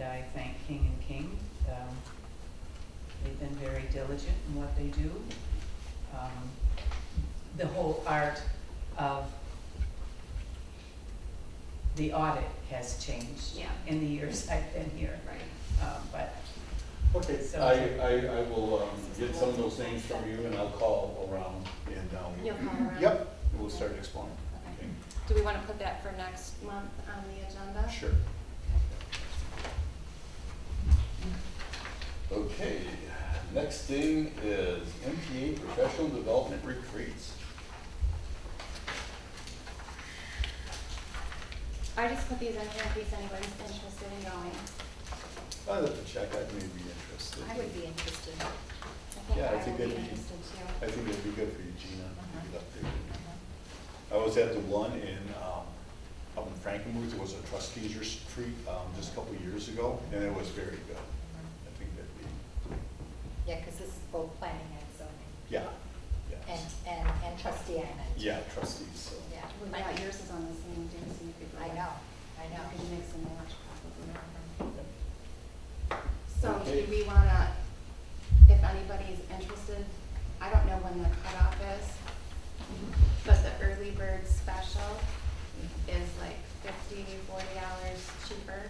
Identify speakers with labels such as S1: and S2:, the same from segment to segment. S1: I thank King and King. Um, They've been very diligent in what they do. Um, The whole art of the audit has changed
S2: Yeah.
S1: in the years I've been here.
S2: Right.
S1: Um, But
S3: Okay,
S1: So-
S3: I, I, I will um, get some of those things from you and I'll call around and,
S2: You'll
S3: um,
S2: call around?
S3: yep, we'll start exploring.
S2: Okay. Do we want to put that for next month on the agenda?
S3: Sure.
S4: Okay, next thing is MTA Professional Development Retreats.
S2: I just put these in here in case anybody's interested in going.
S4: I'd have to check, I may be interested.
S5: I would be interested.
S2: I
S4: Yeah, I
S2: think I will be
S4: think that'd be-
S2: interested
S4: I
S2: too.
S4: think it'd be good for you, Gina, to
S5: Uh-huh.
S4: get up there. I was at the one in, um, up in Frankenmuth, it was a trustees retreat, um, just a couple of years ago, and it was very good. I think that'd be,
S5: Yeah, because this is both planning and zoning,
S4: yeah, yeah,
S5: and, and, and trustee island.
S4: yeah, trustees, so.
S5: Yeah,
S2: Well,
S5: I
S2: yeah, yours is on the same day, so you could go.
S5: I know, I
S2: You could
S5: know.
S2: make some lunch probably.
S4: yeah.
S2: So
S4: Okay.
S2: do we want to, if anybody's interested, I don't know when the cutoff is, but the early bird special is like fifty, forty dollars cheaper.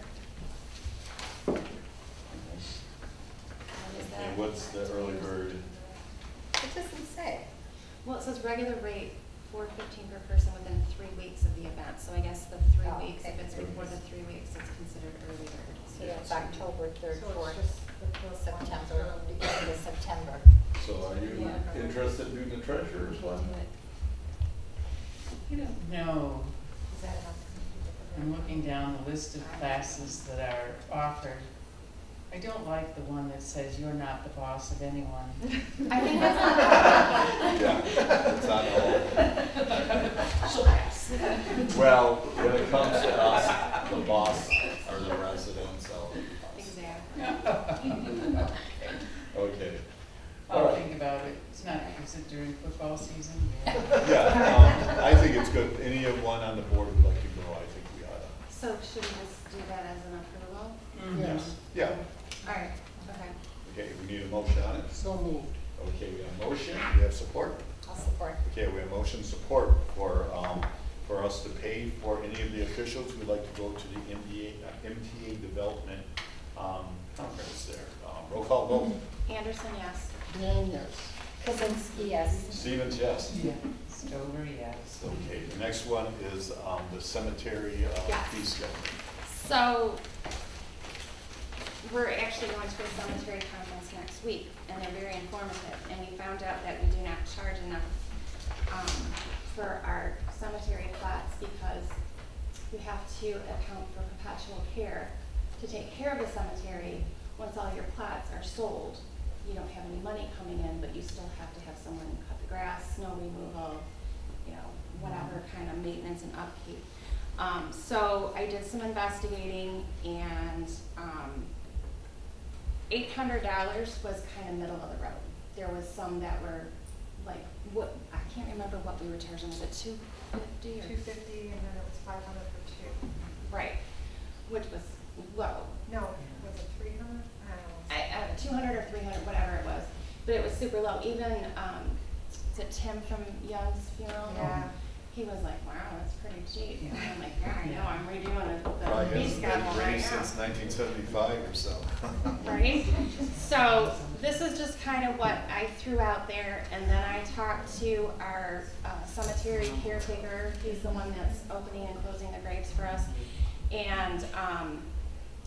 S2: And is that-
S4: And what's the early bird?
S5: It doesn't say.
S2: Well, it says regular rate, four fifteen per person within three weeks of the event, so I guess the
S5: Oh,
S2: three weeks, if
S5: okay.
S2: it's before the three weeks, it's considered early bird.
S5: So that's October third,
S6: So it's
S5: fourth,
S6: just the fourth one.
S5: September, beginning of September.
S4: So are you
S2: Yeah.
S4: interested in the treasurer's one?
S1: I don't know.
S5: Is that enough?
S1: I'm looking down the list of classes that are offered. I don't like the one that says you're not the boss of anyone.
S2: I think that's not.
S4: Yeah, it's not all.
S1: She'll pass.
S4: Well, when it comes to us, the boss or the residents, I'll.
S2: Exactly.
S4: Okay.
S1: I'll think about it. It's not, is it during football season? Yeah.
S4: Yeah, um, I think it's good. Any of one on the board would like to go, I think we ought to.
S2: So should we just do that as an approval?
S1: Mhm.
S4: Yeah,
S2: Alright, okay.
S4: okay, we need a motion on it.
S6: So moved.
S4: Okay, we have motion, we have support.
S5: I'll support.
S4: Okay, we have motion support for, um, for us to pay for any of the officials who'd like to go to the MDA, uh, MTA Development, um, conference there. Um, Roll call vote.
S2: Anderson, yes.
S6: Dan, yes.
S5: Kuzinski, yes.
S4: Stevens, yes.
S1: Yeah. Stover, yes.
S4: Okay, the next one is, um, the cemetery, uh,
S2: Yes.
S4: fee schedule.
S2: So, we're actually going to a cemetery conference next week, and they're very informative, and we found out that we do not charge enough, um, for our cemetery plots because we have to account for perpetual care to take care of the cemetery. Once all your plots are sold, you don't have any money coming in, but you still have to have someone cut the grass, snow removal, you know, whatever kind of maintenance and upkeep. Um, so I did some investigating and, um, eight hundred dollars was kind of middle of the road. There was some that were like, what, I can't remember what we were charging, was it two fifty or?
S6: Two fifty and then it was five hundred for two.
S2: Right, which was low.
S6: No, was it three hundred? I don't know.
S2: I, uh, two hundred or three hundred, whatever it was, but it was super low. Even, um, is it Tim from Young's funeral?
S6: Yeah.
S2: He was like, wow, that's pretty cheap. And I'm like, yeah, I know,
S1: Yeah.
S2: I'm redoing the- the
S4: Probably
S2: fee
S4: hasn't
S2: schedule right now.
S4: been raised since nineteen seventy-five or so.
S2: right? So this is just kind of what I threw out there, and then I talked to our uh, cemetery caretaker, he's the one that's opening and closing the graves for us. And, um,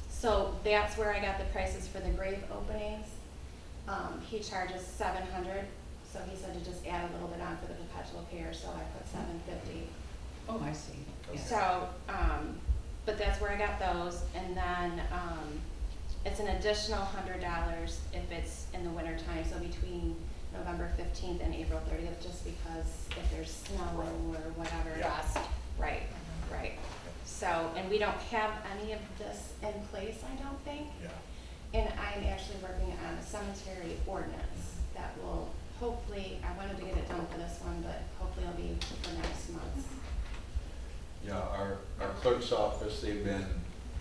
S2: so that's where I got the prices for the grave openings. Um, he charges seven hundred, so he said to just add a little bit on for the perpetual care, so I put seven fifty.
S1: Oh, I see. Yeah.
S2: So, um, but that's where I got those, and then, um, it's an additional hundred dollars if it's in the winter time, so between November fifteenth and April thirtieth, just because if there's snow or whatever.
S4: Yeah. Uh-huh.
S2: Frost. Right, right. So, and we don't have any of this in place, I don't think.
S4: Yeah.
S2: And I'm actually working on a cemetery ordinance that will hopefully, I wanted to get it done for this one, but hopefully it'll be for next month.
S7: Yeah, our, our clerk's office, they've been